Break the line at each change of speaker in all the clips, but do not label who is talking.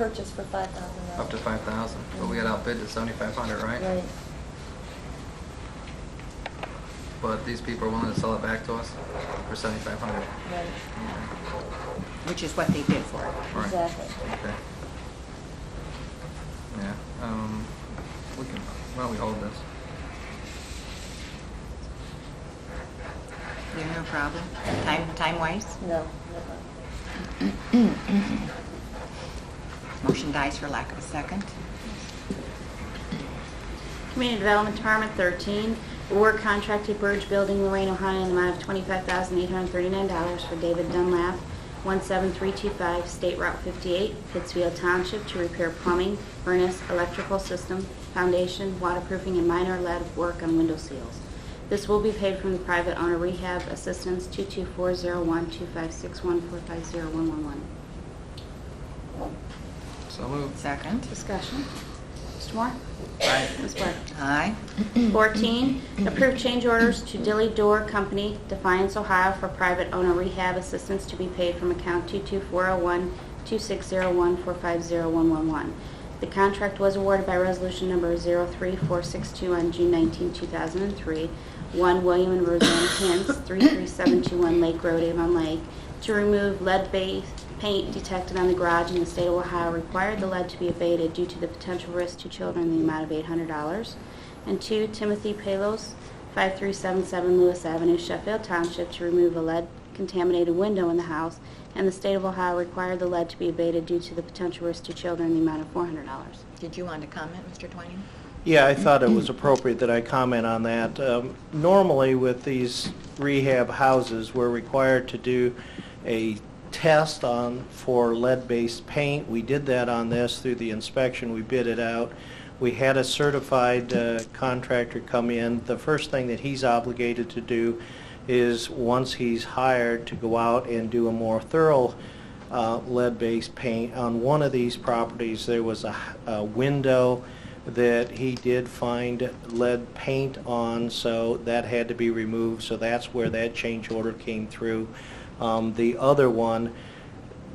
purchase for five thousand dollars.
up to five thousand, but we got outbid to seventy-five hundred, right?
Right.
But these people are willing to sell it back to us for seventy-five hundred.
Right,
which is what they did for it.
Right.
exactly.
Okay. Yeah, um, we can, why don't we hold this?
Yeah, no problem. Time, time-wise,
No,
motion dies for lack of a second.
Community Development Department, 13, award contract to Burge Building, Lorraine, Ohio, in the amount of $25,839 for David Dunlap, 17325 State Route 58, Pittsfield Township, to repair plumbing, furnace, electrical system, foundation, waterproofing, and minor lead work on window seals. This will be paid from the private owner rehab assistance 224012561450111.
So moved.
Second.
Discussion. Mr. Moore?
Aye.
Ms. Blair?
Aye.
14, approve change orders to Dilly Door Company, Defiance, Ohio, for private owner rehab assistance to be paid from account 22401-2601-450111. The contract was awarded by resolution number 03462 on June 19, 2003. One William and Roseanne Pence, 33721 Lake Road, Avon Lake, to remove lead-based paint detected on the garage in the state of Ohio required the lead to be abated due to the potential risk to children in the amount of $800 and two, Timothy Palos, 5377 Lewis Avenue, Sheffield Township, to remove a lead-contaminated window in the house, and the state of Ohio required the lead to be abated due to the potential risk to children in the amount of $400.
Did you want to comment, Mr. Twining?
Yeah, I thought it was appropriate that I comment on that. Um, Normally with these rehab houses, we're required to do a test on, for lead-based paint. We did that on this through the inspection, we bid it out. We had a certified uh, contractor come in. The first thing that he's obligated to do is, once he's hired, to go out and do a more thorough uh, lead-based paint. On one of these properties, there was a, a window that he did find lead paint on, so that had to be removed, so that's where that change order came through. Um, The other one,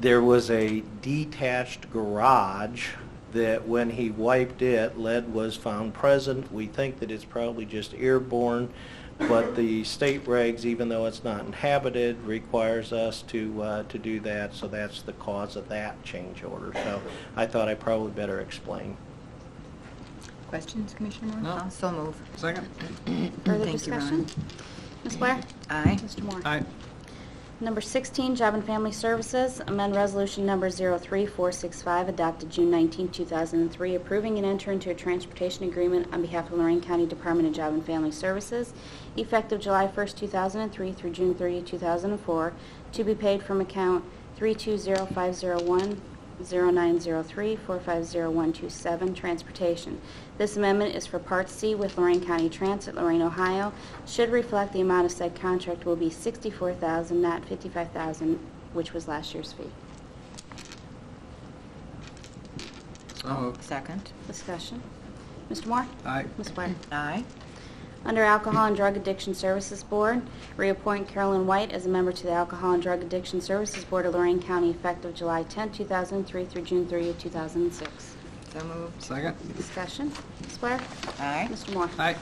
there was a detached garage that when he wiped it, lead was found present. We think that it's probably just airborne, but the state regs, even though it's not inhabited, requires us to, uh, to do that, so that's the cause of that change order. So I thought I probably better explain.
Questions, Commissioner Moore?
No.
So move.
Second?
Thank
Further
you,
discussion?
Ron.
Ms. Blair?
Aye.
Mr. Moore?
Aye.
Number 16, Job and Family Services, amend Resolution Number 03465, adopted June 19, 2003, approving and entering into a transportation agreement on behalf of Lorraine County Department of Job and Family Services, effective July 1, 2003 through June 30, 2004, to be paid from account 320501 0903-450127, Transportation. This amendment is for Part C with Lorraine County Transit, Lorraine, Ohio. Should reflect the amount of said contract will be $64,000, not $55,000, which was last year's fee.
So moved.
Oh, Second.
Discussion. Mr. Moore?
Aye.
Ms. Blair?
Aye.
Under Alcohol and Drug Addiction Services Board, reappoint Carolyn White as a member to the Alcohol and Drug Addiction Services Board of Lorraine County effective July 10, 2003 through June 30, 2006.
So moved.
Second?
Discussion. Ms. Blair?
Aye.
Mr. Moore?
Aye.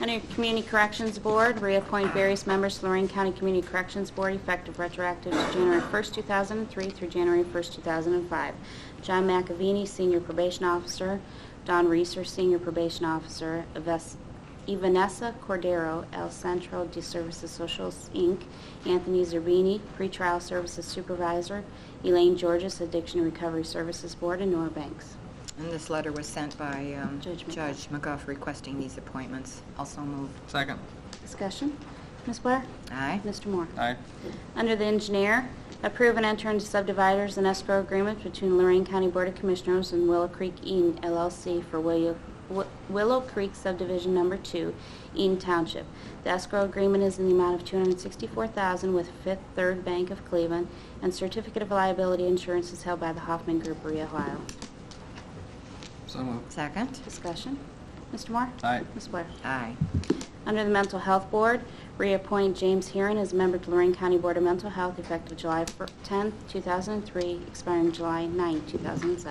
Under Community Corrections Board, reappoint various members to Lorraine County Community Corrections Board effective retroactive to January 1st, 2003 through January 1st, 2005. John McAvini, Senior Probation Officer, Don Reeser, Senior Probation Officer, Eves- Evanessa Cordero, El Centro de Services Socials, Inc., Anthony Zerbini, Pretrial Services Supervisor, Elaine Georges, Addiction Recovery Services Board, and Nora Banks.
And this letter was sent by um,
Judge McGuff.
Judge McGuff requesting these appointments. Also move.
Second?
Discussion? Ms. Blair?
Aye.
Mr. Moore?
Aye.
Under the engineer, approve and enter into subdividers and escrow agreement between Lorraine County Board of Commissioners and Willow Creek Eaton LLC for Willow Wi- Willow Creek subdivision number two, Eaton Township. The escrow agreement is in the amount of $264,000 with Fifth Third Bank of Cleveland, and certificate of liability insurance is held by the Hoffman Group, Rio, Ohio.
So moved.
Second.
Discussion. Mr. Moore?
Aye.
Ms. Blair?
Aye.
Under the Mental Health Board, reappoint James Heron as a member to Lorraine County Board of Mental Health effective July 10, 2003, expiring July 9, 2007.